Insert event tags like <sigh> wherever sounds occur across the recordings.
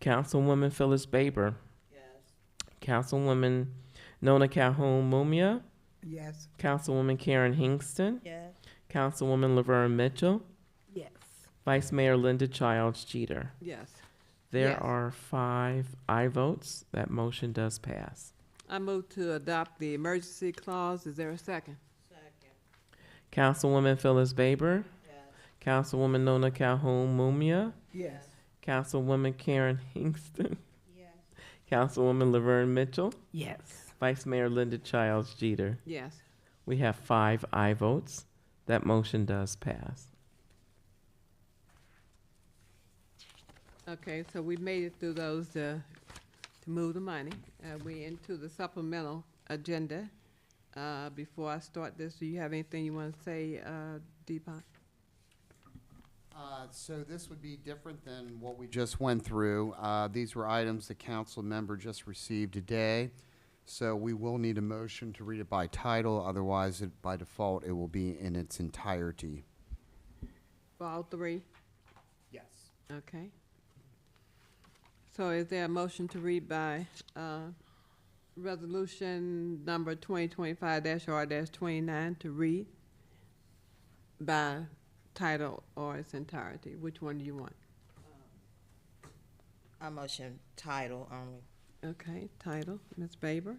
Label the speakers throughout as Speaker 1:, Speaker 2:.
Speaker 1: Councilwoman Phyllis Baber. Councilwoman Nona Calhoun Mumia.
Speaker 2: Yes.
Speaker 1: Councilwoman Karen Hingston.
Speaker 2: Yes.
Speaker 1: Councilwoman Laverne Mitchell.
Speaker 2: Yes.
Speaker 1: Vice Mayor Linda Childs Jeter.
Speaker 2: Yes.
Speaker 1: There
Speaker 2: Yes.
Speaker 1: are five I votes. That motion does pass.
Speaker 2: I move to adopt the emergency clause. Is there a second?
Speaker 1: Councilwoman Phyllis Baber. Councilwoman Nona Calhoun Mumia.
Speaker 2: Yes.
Speaker 1: Councilwoman Karen Hingston. <laughs> Councilwoman Laverne Mitchell.
Speaker 2: Yes.
Speaker 1: Vice Mayor Linda Childs Jeter.
Speaker 2: Yes.
Speaker 1: We have five I votes. That motion does pass.
Speaker 2: Okay, so we made it through those to, to move the money. Uh, we into the supplemental agenda. Uh, before I start this, do you have anything you want to say, uh, Deepak?
Speaker 3: Uh, So this would be different than what we just went through. Uh, These were items the council member just received today, so we will need a motion to read it by title, otherwise, it- by default, it will be in its entirety.
Speaker 2: For all three?
Speaker 3: Yes.
Speaker 2: Okay. So is there a motion to read by, uh, resolution number twenty twenty-five R twenty-nine to read by title or its entirety? Which one do you want?
Speaker 4: Um, I motion title only.
Speaker 2: Okay, title, Ms. Baber.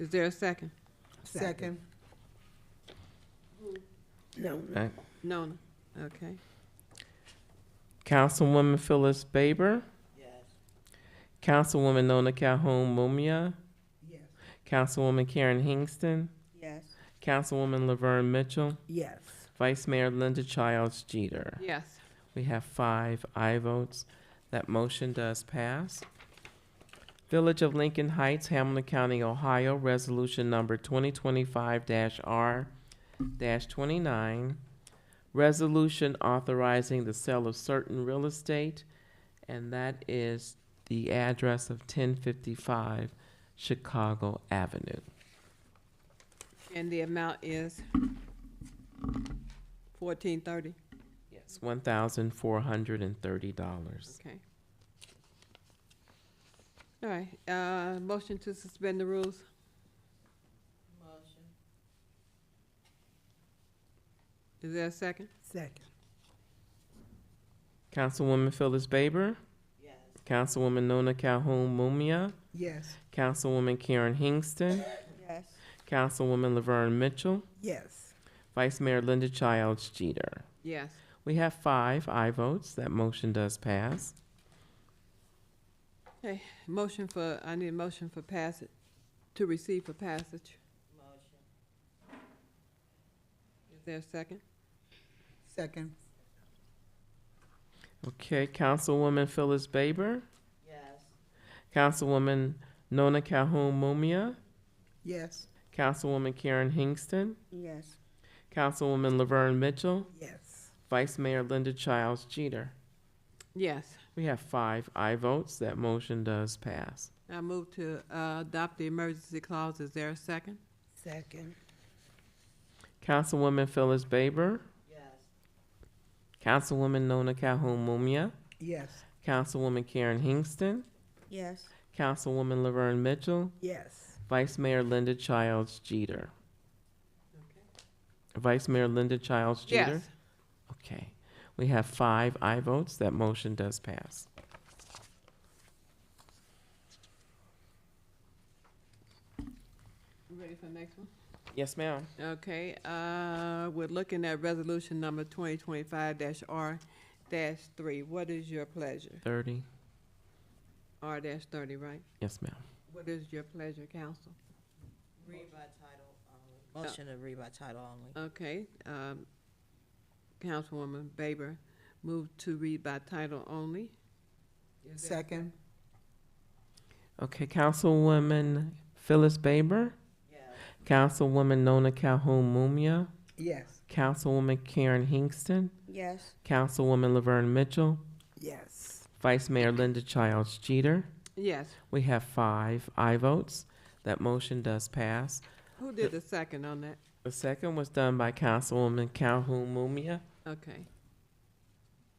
Speaker 2: Is there a second?
Speaker 4: Second.
Speaker 1: Uh,
Speaker 2: Nona, okay.
Speaker 1: Councilwoman Phyllis Baber.
Speaker 4: Yes.
Speaker 1: Councilwoman Nona Calhoun Mumia.
Speaker 4: Yes.
Speaker 1: Councilwoman Karen Hingston.
Speaker 4: Yes.
Speaker 1: Councilwoman Laverne Mitchell.
Speaker 4: Yes.
Speaker 1: Vice Mayor Linda Childs Jeter.
Speaker 2: Yes,
Speaker 1: We have five I votes. That motion does pass. Village of Lincoln Heights, Hamilton County, Ohio, Resolution Number 2025-R-29. Resolution authorizing the sale of certain real estate, and that is the address of 1055 Chicago Avenue.
Speaker 2: and the amount is fourteen thirty,
Speaker 1: Yes, $1,430.
Speaker 2: okay. All right, uh, motion to suspend the rules?
Speaker 4: Motion.
Speaker 2: Is there a second?
Speaker 4: Second.
Speaker 1: Councilwoman Phyllis Baber,
Speaker 4: Yes.
Speaker 1: Councilwoman Nona Calhoun Mumia,
Speaker 4: Yes.
Speaker 1: Councilwoman Karen Hingston,
Speaker 4: Yes.
Speaker 1: Councilwoman Laverne Mitchell,
Speaker 4: Yes.
Speaker 1: Vice Mayor Linda Childs Jeter.
Speaker 2: Yes,
Speaker 1: We have five I votes. That motion does pass.
Speaker 2: motion for, I need a motion for passage, to receive for passage.
Speaker 4: Motion.
Speaker 2: Is there a second?
Speaker 4: Second.
Speaker 1: Okay, Councilwoman Phyllis Baber,
Speaker 4: Yes.
Speaker 1: Councilwoman Nona Calhoun Mumia,
Speaker 4: Yes.
Speaker 1: Councilwoman Karen Hingston,
Speaker 4: Yes.
Speaker 1: Councilwoman Laverne Mitchell,
Speaker 4: Yes.
Speaker 1: Vice Mayor Linda Childs Jeter.
Speaker 2: Yes,
Speaker 1: We have five I votes. That motion does pass.
Speaker 2: I move to, uh, adopt the emergency clause. Is there a second?
Speaker 4: Second.
Speaker 1: Councilwoman Phyllis Baber,
Speaker 4: Yes.
Speaker 1: Councilwoman Nona Calhoun Mumia,
Speaker 4: Yes.
Speaker 1: Councilwoman Karen Hingston,
Speaker 4: Yes.
Speaker 1: Councilwoman Laverne Mitchell,
Speaker 4: Yes.
Speaker 1: Vice Mayor Linda Childs Jeter. Vice Mayor Linda Childs Jeter?
Speaker 2: Yes,
Speaker 1: Okay. We have five I votes. That motion does pass.
Speaker 2: You ready for the next one?
Speaker 1: Yes, ma'am.
Speaker 2: Okay, uh, we're looking at resolution number twenty twenty-five dash R dash three. What is your pleasure?
Speaker 1: Thirty.
Speaker 2: R dash thirty, right?
Speaker 1: Yes, ma'am.
Speaker 2: What is your pleasure, council?
Speaker 4: Read by title only. Motion to read by title only.
Speaker 2: Okay, um, Councilwoman Baber moved to read by title only. Is there-
Speaker 4: Second.
Speaker 1: Okay, Councilwoman Phyllis Baber,
Speaker 4: Yes.
Speaker 1: Councilwoman Nona Calhoun Mumia,
Speaker 4: Yes.
Speaker 1: Councilwoman Karen Hingston,
Speaker 4: Yes.
Speaker 1: Councilwoman Laverne Mitchell,
Speaker 4: Yes.
Speaker 1: Vice Mayor Linda Childs Jeter.
Speaker 2: Yes,
Speaker 1: We have five I votes. That motion does pass.
Speaker 2: who did the second on that?
Speaker 1: The second was done by Councilwoman Calhoun Mumia.
Speaker 2: Okay,